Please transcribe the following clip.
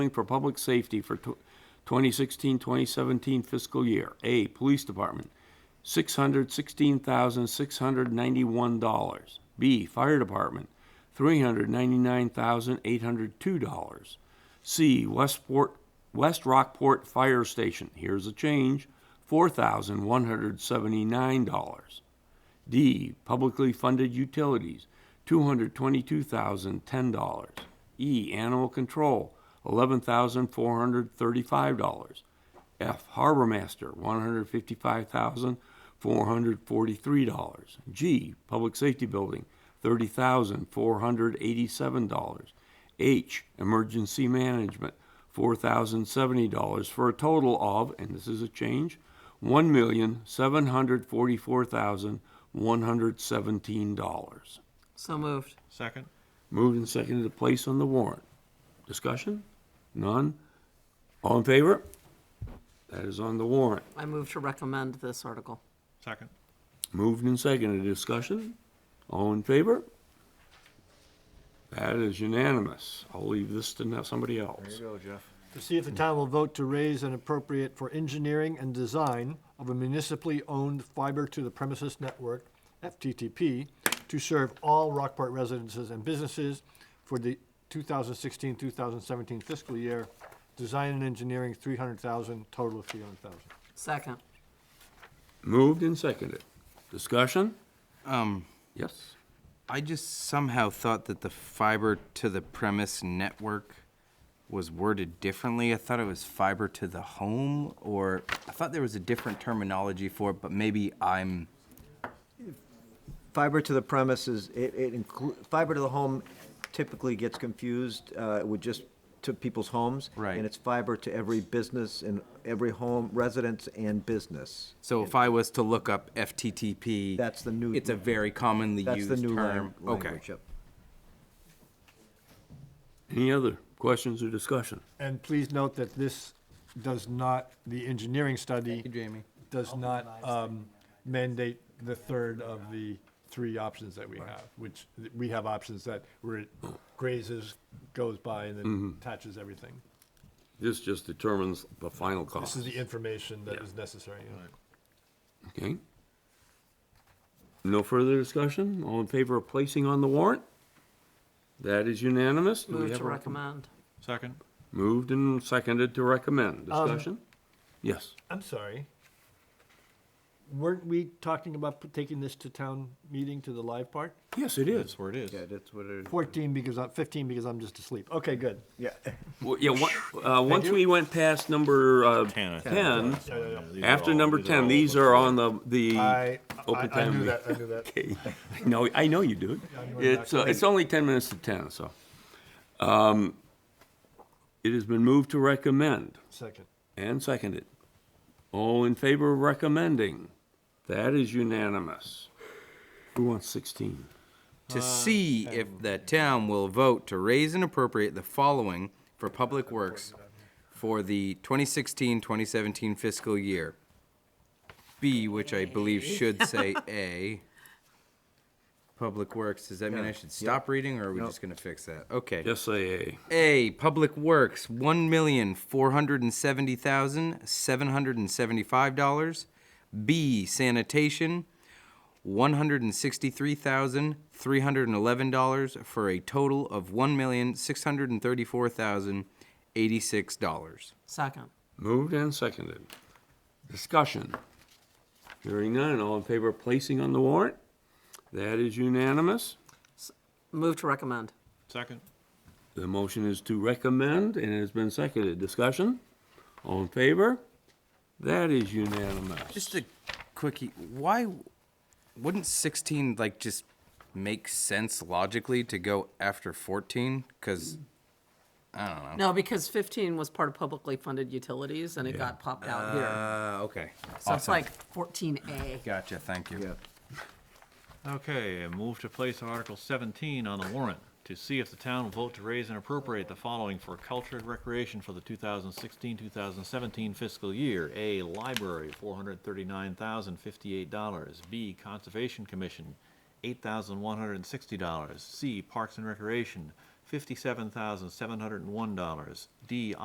for public safety for tw- 2016, 2017 fiscal year. A, Police Department, $616,691. B, Fire Department, $399,802. C, Westport, West Rockport Fire Station, here's a change, $4,179. D, publicly funded utilities, two hundred twenty-two thousand, ten dollars. E, animal control, eleven thousand, four hundred thirty-five dollars. F, harbor master, one hundred fifty-five thousand, four hundred forty-three dollars. G, public safety building, thirty thousand, four hundred eighty-seven dollars. H, emergency management, four thousand seventy dollars for a total of, and this is a change, one million seven hundred forty-four thousand one hundred seventeen dollars. So moved. Second. Moved and seconded to place on the warrant. Discussion? None? All in favor? That is on the warrant. I move to recommend this article. Second. Moved and seconded, discussion? All in favor? That is unanimous. I'll leave this to now somebody else. go, Jeff. To see if the town will vote to raise and appropriate for engineering and design of a municipally owned fiber to the premises network, FTTP, to serve all Rockport residences and businesses for the 2016, 2017 fiscal year. Design and engineering, 300,000, total of 300,000. Second. Moved and seconded, discussion? Um, Yes? I just somehow thought that the fiber to the premise network was worded differently. I thought it was fiber to the home, or I thought there was a different terminology for it, but maybe I'm, Fiber to the premises, it, it include, fiber to the home typically gets confused, uh, with just to people's homes. Right. And it's fiber to every business and every home, residence and business. so if I was to look up FTTP. That's the new- It's a very commonly That's used the new term. lang- Okay. language. yep. Any other questions or discussion? And please note that this does not, the engineering study Thank you, Jamie. does not um, mandate the third of the three options that we have, which, th- we have options that where it grazes, goes by, and then attaches everything. This just determines the final This cost, is the information that is necessary. yeah. okay? No further discussion? All in favor of placing on the warrant? That is unanimous. Do we Move have to a- recommend. Second. Moved and seconded to recommend. Um, Discussion? Yes. I'm sorry. Weren't we talking about p- taking this to town meeting, to the live part? Yes, it is. where it is. Yeah, that's what it is. 14 because, I- 15 because I'm just asleep. Okay, good. Well, yeah, one- uh, once we went past number, uh, ten, Yeah, yeah, yeah. after number ten, these are on the, the I, open I- I time. knew meeting. that, I knew that. Okay. No, I know you do. It's, uh, it's only ten minutes to ten, so. Um, it has been moved to recommend Second. and seconded. All in favor of recommending? That is unanimous. Who wants sixteen? to see if the town will vote to raise and appropriate the following for public works for the 2016-2017 fiscal year. B, which I believe should say A. Public Works, does that mean I should stop reading, or are we just gonna fix that? Okay. Yes, say A, Public Works, one million, four hundred and seventy thousand, seven hundred and seventy-five dollars. B, Sanitation, one hundred and sixty-three thousand, three hundred and eleven dollars, for a total of one million, six hundred and thirty-four thousand, eighty-six dollars. Second. Moved and seconded. Discussion. Hearing none, all in favor of placing on the warrant? That is unanimous. Move to recommend. Second. The motion is to recommend and it has been seconded. Discussion? All in favor? That is unanimous. Just a quickie, why wouldn't sixteen like just make sense logically to go after fourteen? Cause No, because 15 was part of publicly funded utilities and it got popped out here. uh, okay. So it's Awesome. like 14A. Gotcha, thank you. Yeah. Okay, move to place Article 17 on the warrant to see if the town will vote to raise and appropriate the following for culture and recreation for the 2016-2017 fiscal year. A, library, $439,058. B, conservation commission, $8,160. C, parks and recreation, fifty-seven thousand, seven hundred and one dollars. D,